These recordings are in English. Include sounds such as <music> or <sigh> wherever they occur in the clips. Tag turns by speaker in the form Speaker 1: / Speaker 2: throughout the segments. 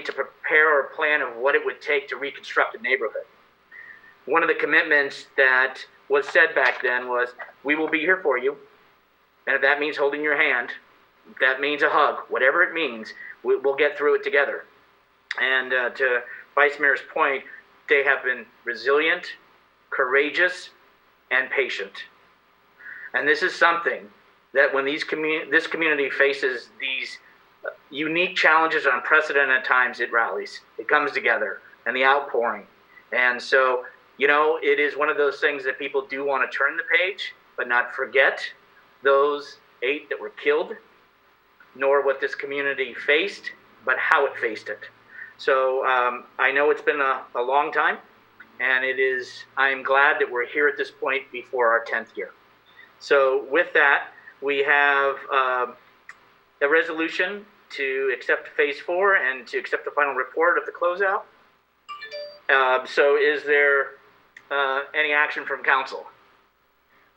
Speaker 1: to prepare a plan of what it would take to reconstruct a neighborhood. One of the commitments that was said back then was, we will be here for you. And if that means holding your hand, if that means a hug, whatever it means, we, we'll get through it together. And uh, to Vice Mayor's point, they have been resilient, courageous, and patient. And this is something that when these commu- this community faces these unique challenges, unprecedented times, it rallies, it comes together, and the outpouring. And so, you know, it is one of those things that people do want to turn the page, but not forget those eight that were killed, nor what this community faced, but how it faced it. So um, I know it's been a, a long time, and it is, I am glad that we're here at this point before our 10th year. So with that, we have um, a resolution to accept phase four and to accept the final report of the closeout. Um, So is there uh, any action from council?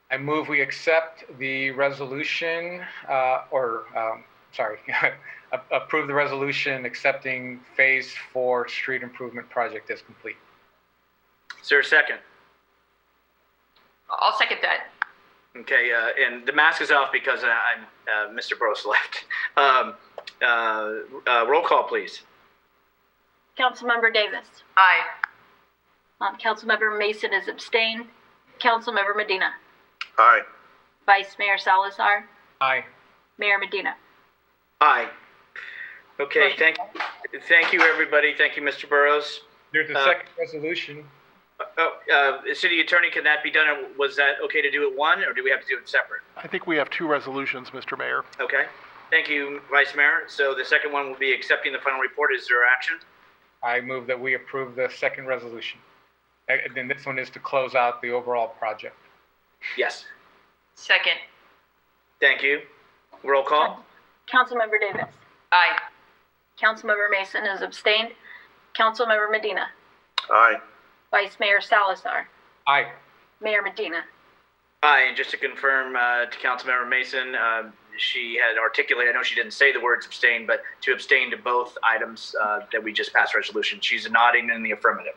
Speaker 2: I move we accept the resolution, uh, or, um, sorry, <laughs> a- approve the resolution accepting Phase 4 street improvement project as complete.
Speaker 1: Is there a second?
Speaker 3: I'll second that.
Speaker 1: Okay, uh, and the mask is off because I- I'm, uh, Mr. Bros left. <laughs> Um, uh, uh, Roll call, please.
Speaker 4: Councilmember Davis.
Speaker 3: Aye.
Speaker 4: Um, Councilmember Mason is abstained. Councilmember Medina.
Speaker 5: Aye.
Speaker 4: Vice Mayor Salazar.
Speaker 2: Aye.
Speaker 4: Mayor Medina.
Speaker 1: Aye. Okay, thank, thank you, everybody. Thank you, Mr. Burrows.
Speaker 2: There's a
Speaker 1: Uh,
Speaker 2: second resolution.
Speaker 1: Oh, uh, City Attorney, can that be done? or Was that okay to do it one, or do we have to do it separate?
Speaker 6: I think we have two resolutions, Mr. Mayor.
Speaker 1: Okay, thank you, Vice Mayor. So the second one will be accepting the final report. Is there action?
Speaker 2: I move that we approve the second resolution. And and then this one is to close out the overall project.
Speaker 1: Yes,
Speaker 3: Second.
Speaker 1: thank you. Roll call?
Speaker 4: Councilmember Davis.
Speaker 3: Aye.
Speaker 4: Councilmember Mason is abstained. Councilmember Medina.
Speaker 5: Aye.
Speaker 4: Vice Mayor Salazar.
Speaker 2: Aye.
Speaker 4: Mayor Medina.
Speaker 1: Aye, and just to confirm uh, to Councilmember Mason, uh, she had articulated, I know she didn't say the words abstain, but to abstain to both items uh, that we just passed resolution. She's nodding in the affirmative.